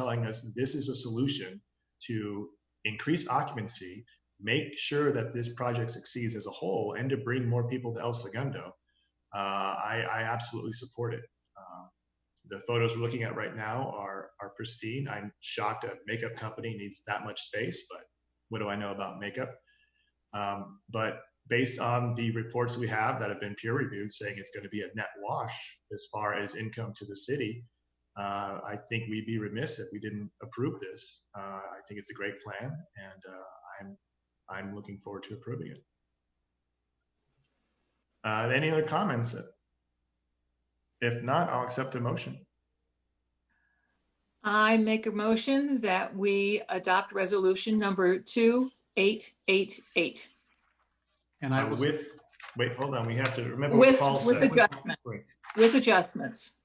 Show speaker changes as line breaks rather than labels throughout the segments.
telling us this is a solution to increase occupancy, make sure that this project succeeds as a whole, and to bring more people to El Segundo, uh, I, I absolutely support it. Uh, the photos we're looking at right now are, are pristine. I'm shocked a makeup company needs that much space, but what do I know about makeup? Um, but based on the reports we have that have been peer reviewed saying it's going to be a net wash as far as income to the city, uh, I think we'd be remiss if we didn't approve this. Uh, I think it's a great plan, and uh, I'm I'm looking forward to approving it. Uh, any other comments? If not, I'll accept a motion.
I make a motion that we adopt resolution number 2888
And I
Uh,
will, s-
with wait, hold on. We have to remember
With-
what Paul
with
said.
adjustment. with adjustments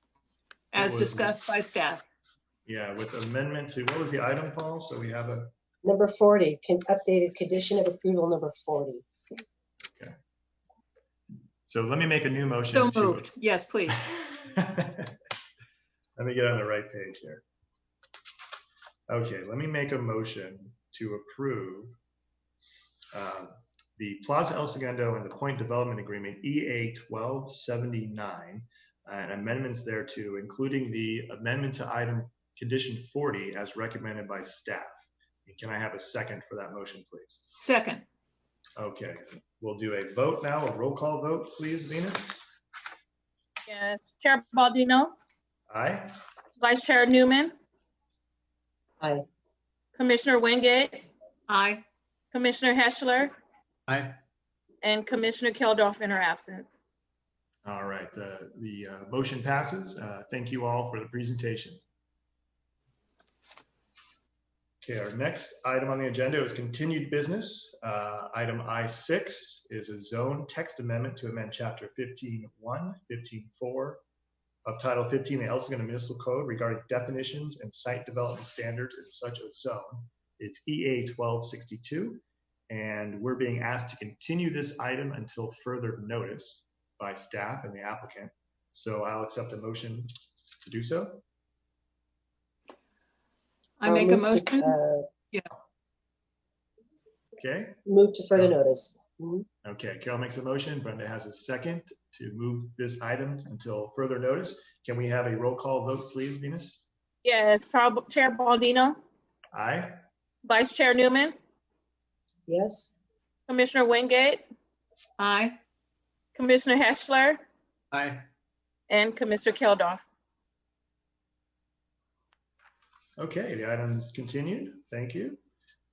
as
What was-
discussed by staff.
Yeah, with amendment to what was the item, Paul? So we have a
Number 40, con- updated condition of approval number 40.
so let me make a new motion.
So
to-
moved. Yes, please.
let me get on the right page here. Okay, let me make a motion to approve um, the Plaza El Segundo and the Point Development Agreement, E EA 1279, and amendments thereto, including the amendment to item condition 40 as recommended by staff. Can I have a second for that motion, please?
Second,
Okay, we'll do a vote now, a roll call vote, please, Venus?
Yes, Chair Baldino,
Aye?
Vice Chair Newman.
Aye.
Commissioner Wingate,
aye.
Commissioner Heschler,
I,
and Commissioner Keldorf in her absence.
All right, the, the uh, motion passes. Uh, Thank you all for the presentation. Okay, our next item on the agenda is continued business. Uh, Item I6 is a zone text amendment to amend Chapter 15-1, 15-4 of Title 15 of the El Segundo Municipal Code regarding definitions and site development standards in such a zone. It's E EA 1262, and we're being asked to continue this item until further notice by staff and the applicant. So I'll accept a motion to do so.
I
I'll
make a
move to,
motion.
uh,
Okay,
Move to further
Yeah.
notice. Mhm.
okay, Carol makes a motion, Brenda has a second to move this item until further notice. Can we have a roll call vote, please, Venus?
Yes, Prob- Chair Baldino,
Aye,
Vice Chair Newman,
Yes,
Commissioner Wingate,
Aye.
Commissioner Heschler,
I,
and Commissioner Keldorf.
okay, the item is continued, thank you.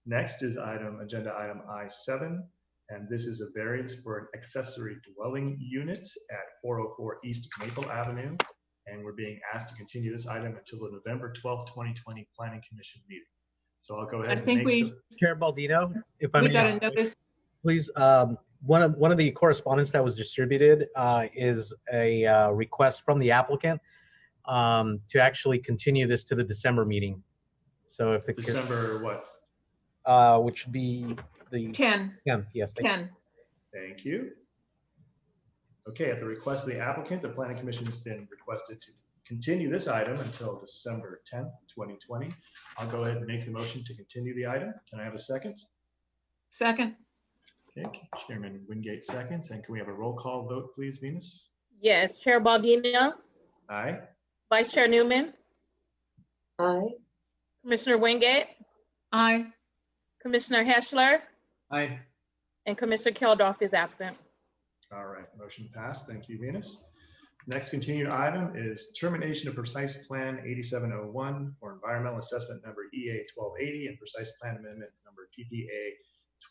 Next is item, agenda item I7, and this is a variance for an accessory dwelling unit at 404 East Maple Avenue. And we're being asked to continue this item until the November 12th, 2020 Planning Commission meeting. So I'll go ahead
I
and
think
make the
we,
Chair Baldino, if I
we
may,
got a
uh,
notice.
please, um, one of, one of the correspondence that was distributed uh, is a uh, request from the applicant um, to actually continue this to the December meeting. So if the,
December what?
uh, which would be the
10,
10th, yes. thank you.
10.
Thank you. Okay, at the request of the applicant, the planning commission has been requested to continue this item until December tenth, twenty twenty. I'll go ahead and make the motion to continue the item. Can I have a second?
Second,
Okay, Chairman Wingate seconds, and can we have a roll call vote, please, Venus?
Yes, Chair Baldino,
Aye.
Vice Chair Newman,
aye,
Commissioner Wingate,
aye.
Commissioner Heschler,
I,
and Commissioner Keldorf is absent.
All right, motion passed. Thank you, Venus. Next continued item is termination of precise plan 8701 for environmental assessment number E EA 1280 and precise plan amendment number PPA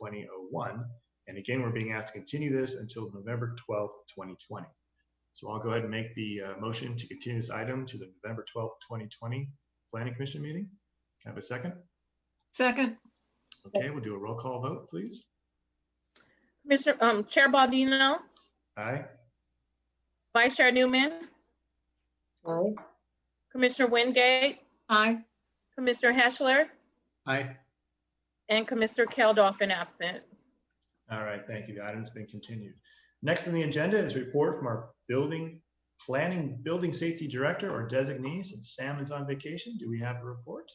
2001. And again, we're being asked to continue this until November 12th, 2020. So I'll go ahead and make the uh, motion to continue this item to the November 12th, 2020 Planning Commission meeting. Can I have a second?
Second,
Okay, we'll do a roll call vote, please.
Commissioner, um, Chair Baldino,
Aye.
Vice Chair Newman,
aye,
Commissioner Wingate,
aye.
Commissioner Heschler,
I,
and Commissioner Keldorf in absent.
All right, thank you. The item's been continued. Next on the agenda is a report from our building, planning, building safety director or designee, since Sam is on vacation. Do we have a report?